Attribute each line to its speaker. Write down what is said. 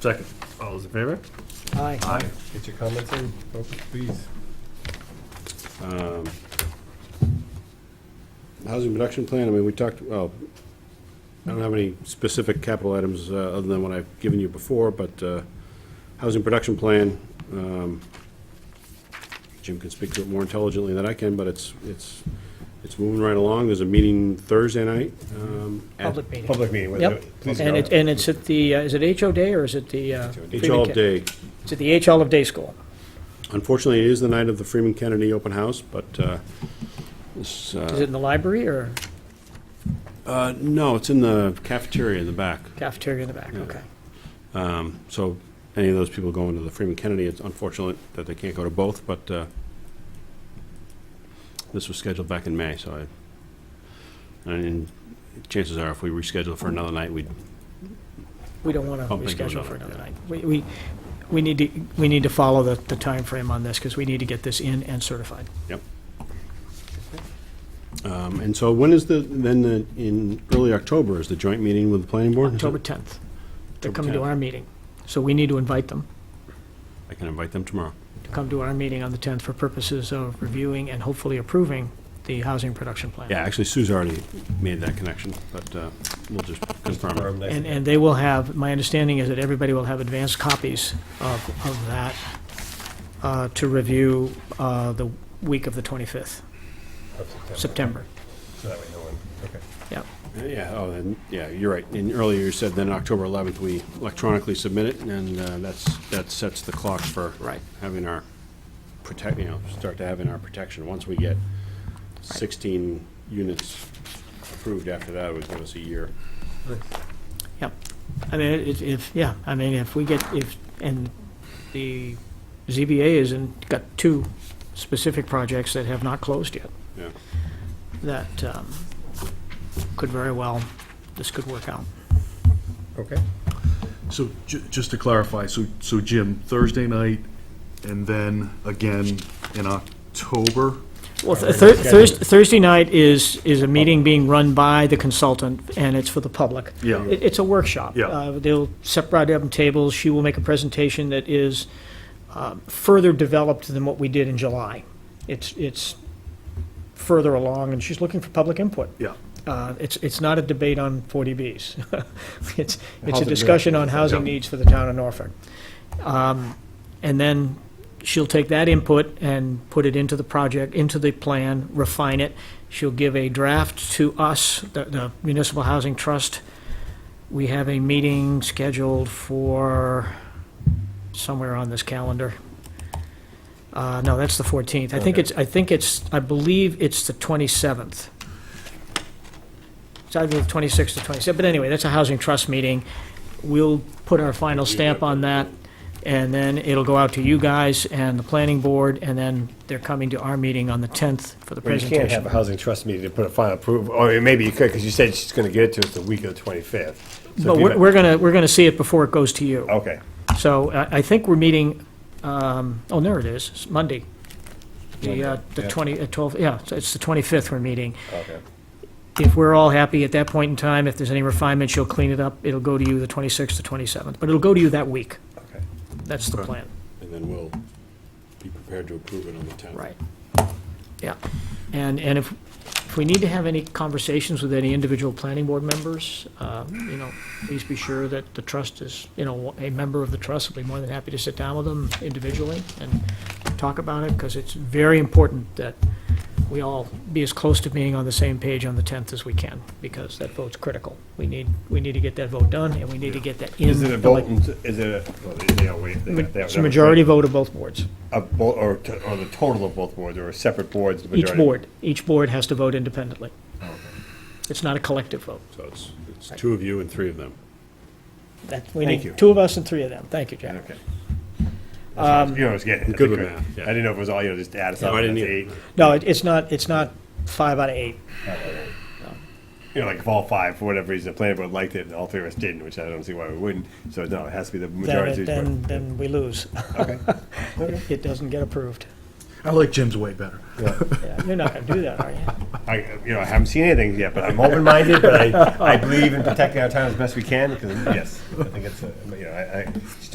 Speaker 1: Second. All those in favor?
Speaker 2: Aye.
Speaker 3: Get your comments in, folks, please.
Speaker 4: Um, Housing production plan, I mean, we talked, well, I don't have any specific capital items uh, other than what I've given you before, but uh, housing production plan, um, Jim can speak to it more intelligently than I can, but it's, it's, it's moving right along. There's a meeting Thursday night. um, at-
Speaker 2: Public meeting.
Speaker 3: Public meeting, whether-
Speaker 2: Yep.
Speaker 3: please go.
Speaker 2: And it, and it's at the, uh, is it HO Day or is it the? uh,
Speaker 4: It's all
Speaker 2: Freeman-
Speaker 4: day.
Speaker 2: It's at the H Olive Day School.
Speaker 4: Unfortunately, it is the night of the Freeman Kennedy open house, but uh, it's, uh,
Speaker 2: Is it in the library or
Speaker 4: uh, no, it's in the cafeteria in the back.
Speaker 2: cafeteria in the back? Okay.
Speaker 4: Um, So any of those people going to the Freeman Kennedy, it's unfortunate that they can't go to both, but uh, this was scheduled back in May, so I, and chances are, if we reschedule for another night, we'd,
Speaker 2: We don't want to
Speaker 4: Pumping goes
Speaker 2: reschedule
Speaker 4: up,
Speaker 2: for another
Speaker 4: yeah.
Speaker 2: night. We, we, we need to, we need to follow the, the timeframe on this because we need to get this in and certified.
Speaker 4: um, and so when is the, then the- in early October is the joint meeting with the planning board? Is it-
Speaker 2: October 10th. They're
Speaker 4: October
Speaker 2: coming to
Speaker 4: 10th.
Speaker 2: our meeting. So we need to invite them
Speaker 4: I can invite them tomorrow.
Speaker 2: to come to our meeting on the 10th for purposes of reviewing and hopefully approving the housing production plan.
Speaker 4: Yeah, actually, Sue's already made that connection, but uh, we'll just confirm it.
Speaker 3: Confirm that.
Speaker 2: And, and they will have, my understanding is that everybody will have advanced copies of, of that uh, to review uh, the week of the 25th,
Speaker 3: Of September.
Speaker 2: September.
Speaker 3: So that way no one, okay.
Speaker 2: Yep,
Speaker 4: Yeah, oh, then, yeah, you're right. And earlier you said then October 11th, we electronically submit it, and uh, that's, that sets the clock for
Speaker 2: right.
Speaker 4: having our protect, you know, start to having our protection. Once we get 16 units approved after that, it would give us a year.
Speaker 2: I mean, if, if, yeah, I mean, if we get, if, and the ZBA is in, got two specific projects that have not closed yet.
Speaker 4: Yeah.
Speaker 2: That um, could very well, this could work out.
Speaker 3: Okay.
Speaker 1: So ju- just to clarify, so, so Jim, Thursday night and then again in October?
Speaker 2: Well, th- Thur- Thurs- Thursday night is, is a meeting being run by the consultant, and it's for the public.
Speaker 1: Yeah.
Speaker 2: It- It's a workshop.
Speaker 1: Yeah.
Speaker 2: Uh, They'll separate up tables, she will make a presentation that is um, further developed than what we did in July. It's, it's further along, and she's looking for public input.
Speaker 1: Yeah.
Speaker 2: Uh, It's, it's not a debate on 40Bs. It's, it's a
Speaker 3: Housing
Speaker 2: discussion on housing
Speaker 1: Yeah.
Speaker 2: needs for the town of Norfolk. Um, And then she'll take that input and put it into the project, into the plan, refine it. She'll give a draft to us, the- the Municipal Housing Trust. We have a meeting scheduled for somewhere on this calendar. Uh, No, that's the 14th. I think it's, I think it's, I believe it's the 27th. It's either the 26th or 27th, but anyway, that's a Housing Trust meeting. We'll put our final stamp on that, and then it'll go out to you guys and the planning board, and then they're coming to our meeting on the 10th for the
Speaker 3: Well, you can't have a
Speaker 2: presentation.
Speaker 3: housing trust meeting to put a final approval, or maybe you could, because you said she's gonna get it to us the week of the twenty-fifth.
Speaker 2: But we're we're gonna, we're gonna see it before it goes to you.
Speaker 3: Okay,
Speaker 2: So uh, I, I think we're meeting, um, oh, there it is, it's Monday. The, uh, the
Speaker 3: yeah.
Speaker 2: twenty, uh, twelve, yeah, so it's the twenty-fifth we're meeting.
Speaker 3: okay.
Speaker 2: If we're all happy at that point in time, if there's any refinements, you'll clean it up. It'll go to you the twenty-sixth, the twenty-seventh, but it'll go to you that week.
Speaker 3: Okay.
Speaker 2: That's the plan,
Speaker 4: And then we'll be prepared to approve it on the 10th.
Speaker 2: right? Yeah, and, and if, if we need to have any conversations with any individual planning board members, uh, you know, please be sure that the trust is, you know, a member of the trust will be more than happy to sit down with them individually and talk about it, because it's very important that we all be as close to being on the same page on the 10th as we can, because that vote's critical. We need, we need to get that vote done, and we need to get that in.
Speaker 3: Is it a
Speaker 2: the
Speaker 3: vote,
Speaker 2: like-
Speaker 3: and- is it a, well, they- they all wait. they- they-
Speaker 2: It's a majority vote of both boards.
Speaker 3: A bo- or, t- or the total of both boards, or a separate boards, the majority? Oh,
Speaker 2: Each board, each board has to vote independently. It's not a collective vote.
Speaker 4: So it's, it's two of you and three of them.
Speaker 2: That, we
Speaker 3: Thank
Speaker 2: need
Speaker 3: you.
Speaker 2: two of us and three of them. Thank you, Jack.
Speaker 3: Okay. Um. You know, I was getting.
Speaker 4: I'm good with math, yeah.
Speaker 3: I didn't know if it was all, you know, just add us
Speaker 4: No,
Speaker 3: up,
Speaker 4: I
Speaker 3: that's
Speaker 4: didn't either.
Speaker 3: eight.
Speaker 2: No, it- it's not, it's not five out of eight.
Speaker 3: You know, like if all five, for whatever reason, the planning board liked it and all three of us didn't, which I don't see why we wouldn't, so no, it has to be the majority.
Speaker 2: Then,
Speaker 3: of each board.
Speaker 2: then, then we lose.
Speaker 3: Okay.
Speaker 2: It doesn't get approved.
Speaker 1: I like Jim's way better.
Speaker 2: Yeah, You're not gonna do that, are you?
Speaker 3: I, you know, I haven't seen anything yet, but I'm open-minded, but I, I believe in protecting our town as best we can, because, yes, I think it's, a- you know, I, I,